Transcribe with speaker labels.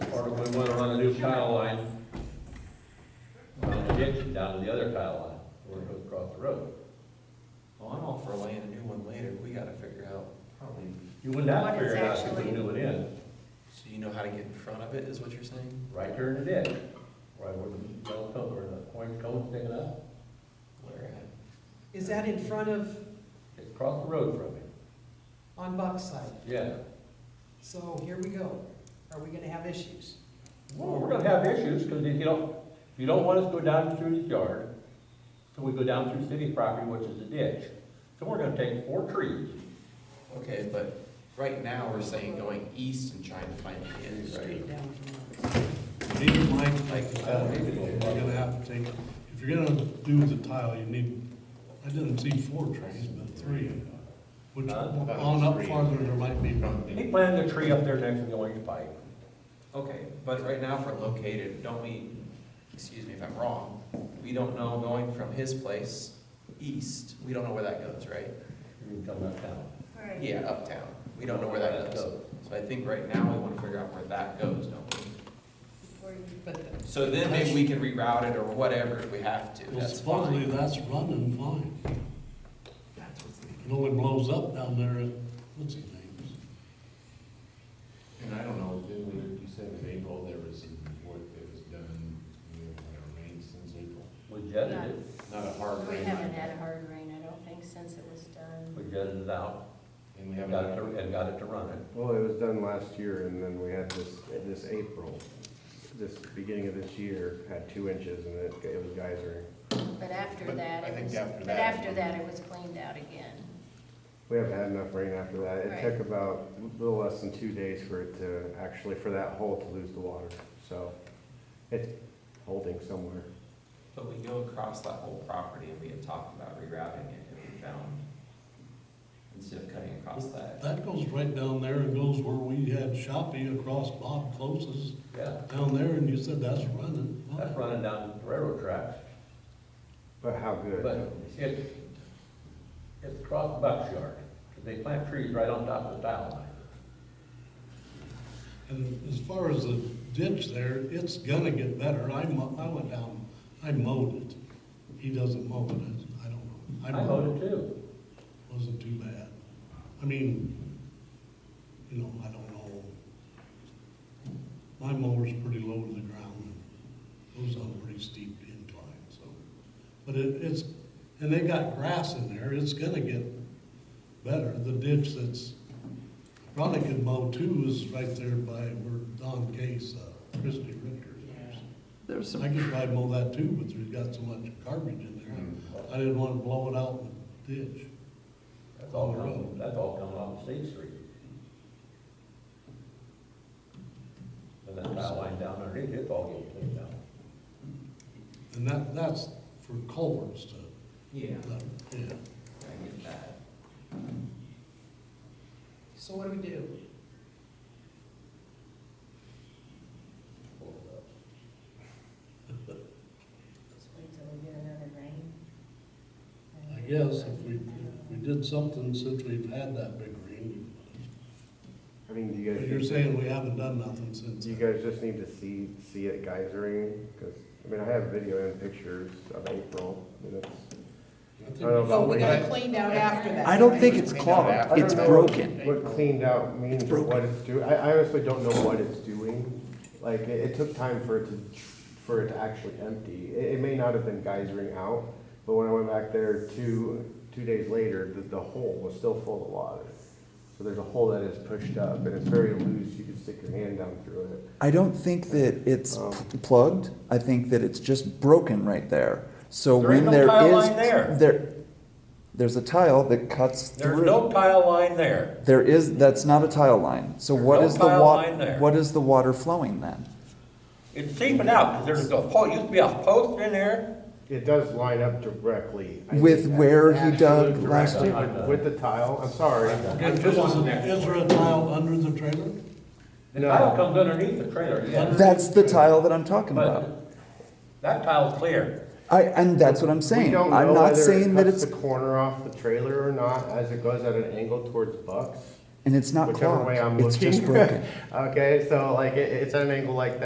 Speaker 1: tile line on the ditch down to the other tile line, where it goes across the road.
Speaker 2: Well, I'm all for laying a new one later, we gotta figure out, probably,
Speaker 1: You would not
Speaker 3: What is
Speaker 1: figure it out if you put
Speaker 3: actually-
Speaker 1: a new one in,
Speaker 2: so you know how to get in front of it, is what you're saying?
Speaker 1: right there in the ditch, right where the yellow coat or the orange coat sticking up,
Speaker 2: Where at?
Speaker 4: Is that in front of,
Speaker 1: it's across the road from it,
Speaker 4: on Buck's side?
Speaker 1: yeah.
Speaker 4: So here we go. Are we gonna have issues?
Speaker 1: Well, we're gonna have issues, because if you don't, if you don't want us to go down through his yard, so we go down through city property, which is a ditch. So we're gonna take four trees,
Speaker 2: Okay, but right now, we're saying going east and trying to find the end, right?
Speaker 4: Straight down from us.
Speaker 5: Need in mind, like, uh,
Speaker 1: I don't need to go
Speaker 5: you're
Speaker 1: far.
Speaker 5: gonna have to take, if you're gonna do the tile, you need, I didn't see four trees, but three. Which,
Speaker 1: Huh?
Speaker 5: on up farther, there might be one.
Speaker 1: he planted a tree up there next to the orange pipe.
Speaker 2: Okay, but right now, if we're located, don't we, excuse me if I'm wrong, we don't know going from his place east, we don't know where that goes, right?
Speaker 1: You can come uptown.
Speaker 3: Right.
Speaker 2: Yeah, uptown, we don't know where that goes. So I think right now, we wanna figure out where that goes, don't we?
Speaker 3: Before you-
Speaker 4: But the-
Speaker 2: So then maybe we can reroute it or whatever if we have to,
Speaker 5: Well,
Speaker 2: that's
Speaker 5: supposedly
Speaker 2: fine.
Speaker 5: that's running fine.
Speaker 2: That's what's the-
Speaker 5: It only blows up down there at, what's his name?
Speaker 6: And I don't know, didn't we, you said in April there was some work that was done, you know, when it rained since April?
Speaker 1: We jetted it,
Speaker 6: Not a hard
Speaker 3: We
Speaker 6: rain.
Speaker 3: haven't had hard rain, I don't think, since it was done.
Speaker 1: we jetted it out,
Speaker 6: And we
Speaker 1: and
Speaker 6: haven't
Speaker 1: got it
Speaker 6: had,
Speaker 1: to, and got it to run it.
Speaker 7: Well, it was done last year, and then we had this, this April, this beginning of this year, had two inches, and it, it was geysering.
Speaker 3: But after
Speaker 6: But
Speaker 3: that,
Speaker 6: I
Speaker 3: it
Speaker 6: think
Speaker 3: was,
Speaker 6: after
Speaker 3: but
Speaker 6: that-
Speaker 3: after that, it was cleaned out again.
Speaker 7: We haven't had enough rain after that. It
Speaker 3: Right.
Speaker 7: took about a little less than two days for it to, actually, for that hole to lose the water, so it's holding somewhere.
Speaker 2: But we go across that whole property and we had talked about rerouting it if we found, instead of cutting across that.
Speaker 5: That goes right down there and goes where we had Shopee across Bob Close's
Speaker 1: Yeah,
Speaker 5: down there, and you said that's running. fine.
Speaker 1: that's running down the railroad tracks,
Speaker 7: But how good?
Speaker 1: but it's, it's across the box yard, 'cause they plant trees right on top of the tile line.
Speaker 5: And as far as the ditch there, it's gonna get better. I mo- I went down, I mowed it. He doesn't mow it, I don't know.
Speaker 1: I mowed it too,
Speaker 5: Wasn't too bad. I mean, you know, I don't know. My mower's pretty low to the ground. Goes on a pretty steep incline, so. But it, it's, and they got grass in there, it's gonna get better. The ditch that's, probably could mow too is right there by where Don Case, uh, Christie Ritter lives.
Speaker 8: There's
Speaker 5: I
Speaker 8: some,
Speaker 5: could probably mow that too, but there's got so much garbage in there. I didn't wanna blow it out in the ditch.
Speaker 1: that's all coming, that's all coming off State Street. And that tile line down underneath, it's all getting cleaned out.
Speaker 5: And that, that's for culverts to,
Speaker 2: Yeah.
Speaker 5: that- yeah.
Speaker 2: I get that.
Speaker 4: So what do we do?
Speaker 3: Just wait till we get another rain.
Speaker 5: I guess if we, if we did something since we've had that big rain.
Speaker 7: I mean, do you
Speaker 5: But
Speaker 7: guys?
Speaker 5: you're saying we haven't done nothing since.
Speaker 7: You guys just need to see, see it geysering, because, I mean, I have video and pictures of April, and it's.
Speaker 5: I think
Speaker 7: I don't know
Speaker 4: Oh,
Speaker 7: about
Speaker 4: we got it
Speaker 7: what,
Speaker 4: cleaned out after that.
Speaker 8: I don't think
Speaker 4: right?
Speaker 8: it's clogged,
Speaker 7: I don't
Speaker 8: it's
Speaker 7: know
Speaker 8: broken.
Speaker 7: what cleaned out means, or what it's doing, I, I honestly don't know what it's doing. Like, it, it took time for it to, for it to actually empty, it, it may not have been geysering out, but when I went back there two, two days later, the, the hole was still full of water. So there's a hole that is pushed up, and it's very loose, you can stick your hand down through it.
Speaker 8: I don't think that it's
Speaker 1: Oh.
Speaker 7: Um,
Speaker 8: pl- plugged, I think that it's just broken right there. So
Speaker 1: There
Speaker 8: when
Speaker 1: ain't no
Speaker 8: there
Speaker 1: tile
Speaker 8: is,
Speaker 1: line there.
Speaker 8: there, there's a tile that cuts
Speaker 1: There's no
Speaker 8: through.
Speaker 1: tile line there.
Speaker 8: There is, that's not a tile line, so
Speaker 1: There's
Speaker 8: what
Speaker 1: no
Speaker 8: is the
Speaker 1: tile
Speaker 8: wa,
Speaker 1: line there.
Speaker 8: what is the water flowing then?
Speaker 1: It's seeping out, 'cause there's a po, used to be a post in there.
Speaker 7: It does line up directly. I
Speaker 8: With
Speaker 7: think that-
Speaker 8: where he dug
Speaker 7: Absolute
Speaker 8: last
Speaker 7: directly
Speaker 1: year.
Speaker 7: With with the tile, I'm sorry.
Speaker 5: Is there a tile under the trailer?
Speaker 1: The tile comes underneath the trailer, yeah.
Speaker 8: That's the tile that I'm talking about.
Speaker 1: But that tile's clear.
Speaker 8: I, and that's what I'm
Speaker 7: We
Speaker 8: saying,
Speaker 7: don't
Speaker 8: I'm
Speaker 7: know
Speaker 8: not
Speaker 7: whether it
Speaker 8: saying that
Speaker 7: cuts
Speaker 8: it's,
Speaker 7: The corner off the trailer or not, as it goes at an angle towards Bucks,
Speaker 8: and it's not
Speaker 7: whichever
Speaker 8: clogged,
Speaker 7: way I'm
Speaker 8: it's just
Speaker 7: looking.
Speaker 8: broken.
Speaker 7: Okay, so like, it, it's at an angle like that.